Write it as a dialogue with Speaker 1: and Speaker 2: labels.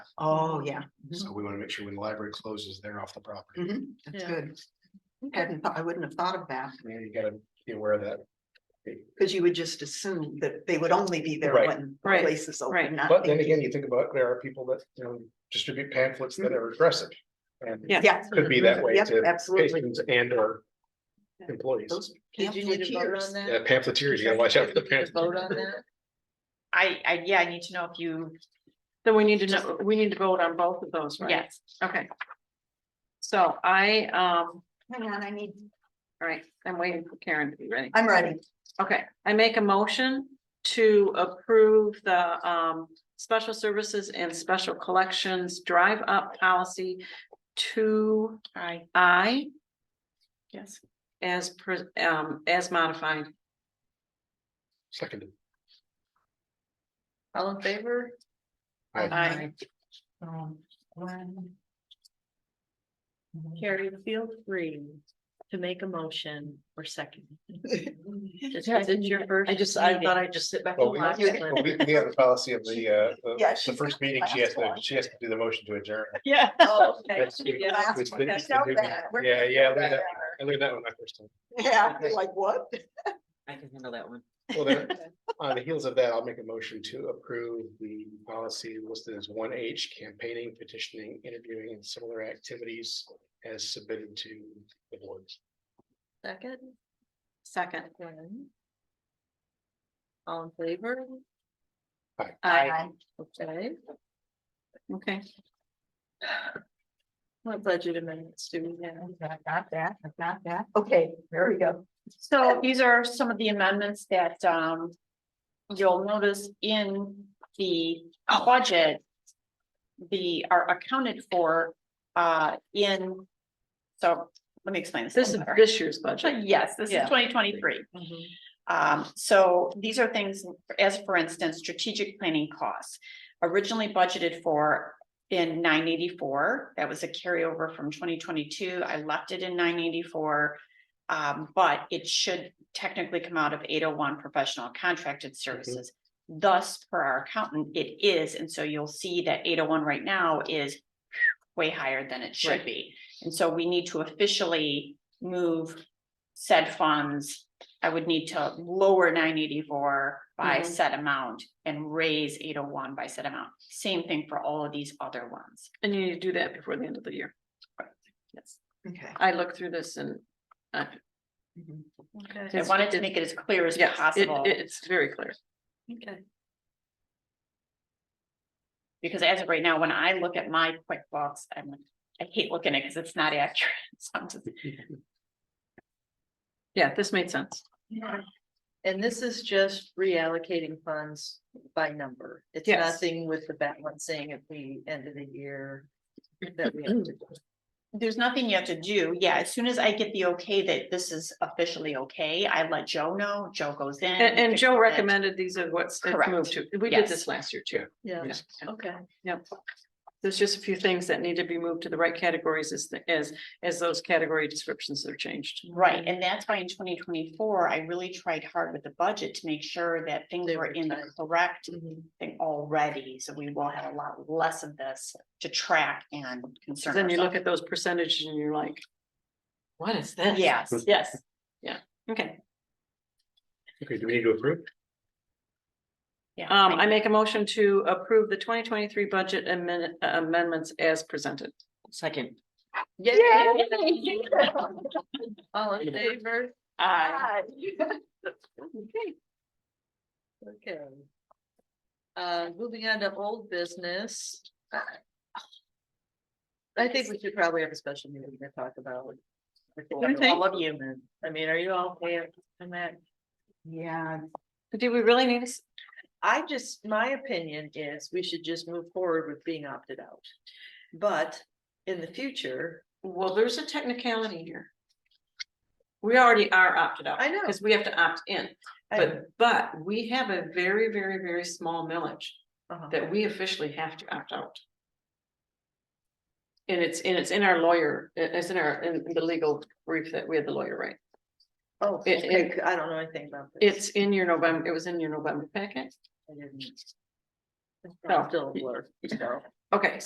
Speaker 1: Oh, yeah,
Speaker 2: So we want to make sure when the library closes, they're off the property.
Speaker 1: mhm, that's
Speaker 3: Yeah.
Speaker 1: good. Hadn't, thought- I wouldn't have thought of that,
Speaker 2: Yeah, You gotta be aware of that.
Speaker 1: because you would just assume that they would only be there
Speaker 2: Right.
Speaker 1: when the
Speaker 3: Right,
Speaker 1: place is
Speaker 3: right.
Speaker 1: open, not.
Speaker 2: But then
Speaker 1: thinking-
Speaker 2: again, you think about, there are people that, you know, distribute pamphlets that are aggressive. And
Speaker 3: Yeah.
Speaker 1: Yeah.
Speaker 2: could be that way
Speaker 1: Yep,
Speaker 2: to
Speaker 1: absolutely.
Speaker 2: patrons and or
Speaker 3: Yeah.
Speaker 2: employees.
Speaker 1: Those
Speaker 3: Did you need to vote
Speaker 1: pamphleteers.
Speaker 3: on that?
Speaker 2: Yeah, pamphleteers, you gotta watch out for the
Speaker 3: Did you need to Vote
Speaker 2: pamphleteers.
Speaker 3: on that?
Speaker 4: I, I, yeah, I need to know if you,
Speaker 3: Then we need to know, we need to vote on both of those, right?
Speaker 4: yes,
Speaker 3: Okay. So I, um,
Speaker 1: Hang on, I need,
Speaker 3: all right, I'm waiting for Karen to be ready.
Speaker 1: I'm ready.
Speaker 3: Okay, I make a motion to approve the um special services and special collections drive up policy two
Speaker 4: I,
Speaker 3: I
Speaker 4: yes.
Speaker 3: as per, um, as modified.
Speaker 2: Seconded.
Speaker 4: All in favor?
Speaker 2: Aye.
Speaker 3: Aye.
Speaker 1: Um, one.
Speaker 4: Carrie, feel free to make a motion or second. Just
Speaker 3: Yeah, I
Speaker 4: because it's your first.
Speaker 3: I just, I
Speaker 4: meeting.
Speaker 3: thought I'd just sit back.
Speaker 2: Well,
Speaker 3: and
Speaker 2: we,
Speaker 3: watch
Speaker 1: Yeah.
Speaker 3: it.
Speaker 2: well, we we have the policy of the, uh,
Speaker 1: Yeah,
Speaker 2: the- the
Speaker 1: she's
Speaker 2: first
Speaker 1: the
Speaker 2: meeting, she has to,
Speaker 1: last
Speaker 2: she has to do the motion to adjourn.
Speaker 4: Yeah.
Speaker 1: Oh, okay.
Speaker 2: That's- it's-
Speaker 3: Yeah.
Speaker 1: Last
Speaker 2: it's
Speaker 1: one.
Speaker 2: been-
Speaker 1: I
Speaker 2: it's been
Speaker 1: felt
Speaker 2: doing
Speaker 1: that.
Speaker 2: that.
Speaker 1: We're-
Speaker 2: Yeah, yeah, I learned that, I learned that one my first time.
Speaker 1: Yeah, like what?
Speaker 5: I can handle that one.
Speaker 2: Well, then, on the heels of that, I'll make a motion to approve the policy listed as one H campaigning, petitioning, interviewing and similar activities as submitted to the board.
Speaker 4: Second,
Speaker 3: Second,
Speaker 4: one. All in favor?
Speaker 3: I,
Speaker 4: Okay.
Speaker 3: okay,
Speaker 4: What budget amendments do we have?
Speaker 1: Not that, not that. Okay, there we go.
Speaker 4: So these are some of the amendments that um you'll notice in the budget. The are accounted for uh in, so let me explain this. a
Speaker 3: this is
Speaker 4: little better.
Speaker 3: this year's budget.
Speaker 4: Yes, this
Speaker 3: Yeah.
Speaker 4: is twenty twenty-three. Um, so these are things, as for instance, strategic planning costs. Originally budgeted for in nine eighty-four, that was a carryover from twenty twenty-two, I left it in nine eighty-four. Um, but it should technically come out of eight oh one professional
Speaker 3: Mm-hmm.
Speaker 4: contracted services. Thus, per our accountant, it is, and so you'll see that eight oh one right now is way higher than it should
Speaker 3: Right.
Speaker 4: be. And so we need to officially move said funds I would need to lower nine eighty-four by
Speaker 3: Mhm.
Speaker 4: set amount and raise eight oh one by set amount. Same thing for all of these other ones.
Speaker 3: And you need to do that before the end of the year.
Speaker 4: Yes.
Speaker 1: Okay.
Speaker 3: I looked through this and uh,
Speaker 1: Mhm.
Speaker 4: I
Speaker 3: It's-
Speaker 4: wanted to
Speaker 3: it's-
Speaker 4: make it as clear as
Speaker 3: yes, it,
Speaker 4: possible,
Speaker 3: it- it's very clear.
Speaker 4: because as of right now, when I look at my QuickBooks, I'm like, I hate looking at it because it's not accurate. So I'm just-
Speaker 3: Yeah, this made sense.
Speaker 6: And this is just reallocating funds by number. It's
Speaker 3: Yes.
Speaker 6: nothing with the balancing at the end of the year. that we have to do.
Speaker 4: There's nothing you have to do. Yeah, as soon as I get the okay that this is officially okay, I let Joe know. Joe goes in.
Speaker 3: And, and
Speaker 4: fixes
Speaker 3: Joe
Speaker 4: it.
Speaker 3: recommended these are what's it's
Speaker 4: Correct.
Speaker 3: moved to. We did
Speaker 4: Yes.
Speaker 3: this last year too.
Speaker 6: Yeah,
Speaker 3: Yeah.
Speaker 6: okay.
Speaker 3: Yep. There's just a few things that need to be moved to the right categories as, the- as, as those category descriptions are changed.
Speaker 4: Right, and that's why in twenty twenty-four, I really tried hard with the budget to make sure that things
Speaker 6: They
Speaker 4: were
Speaker 6: were
Speaker 4: in the
Speaker 6: tight.
Speaker 4: correct
Speaker 6: Mhm.
Speaker 4: thing already, so we will have a lot less of this to track and concern.
Speaker 3: Then you look
Speaker 4: ourselves.
Speaker 3: at those percentages and you're like, what is this?
Speaker 4: Yes, yes,
Speaker 3: Okay,
Speaker 2: Okay, do we need to approve?
Speaker 4: yeah.
Speaker 3: um, I
Speaker 4: you.
Speaker 3: make a motion to approve the twenty twenty-three budget amend- amendments as presented.
Speaker 5: Second,
Speaker 6: All in favor?
Speaker 1: Hi.
Speaker 6: Okay. Uh, moving on to old business. I think we should probably have a special meeting to talk about.
Speaker 3: You think?
Speaker 6: All of you, man. I mean, are you all there? I'm at
Speaker 1: Yeah,
Speaker 3: Do we really need, s-
Speaker 6: I just, my opinion is we should just move forward with being opted out. But in the future,
Speaker 3: well, there's a technicality here. We already are opted out.
Speaker 6: I know.
Speaker 3: Because we have to opt in,
Speaker 6: I,
Speaker 3: but, but we have a very, very, very small millage.
Speaker 6: uh-huh.
Speaker 3: that we officially have to opt out. And it's, and it's in our lawyer, it- it's in our, in the legal brief that we had the lawyer write.
Speaker 6: oh,
Speaker 3: it-
Speaker 6: okay,
Speaker 3: it-
Speaker 6: I don't know anything about this.
Speaker 3: It's in your November, it was in your November packet.
Speaker 6: I didn't- It's
Speaker 3: No.
Speaker 6: still a blur, so.
Speaker 3: Okay,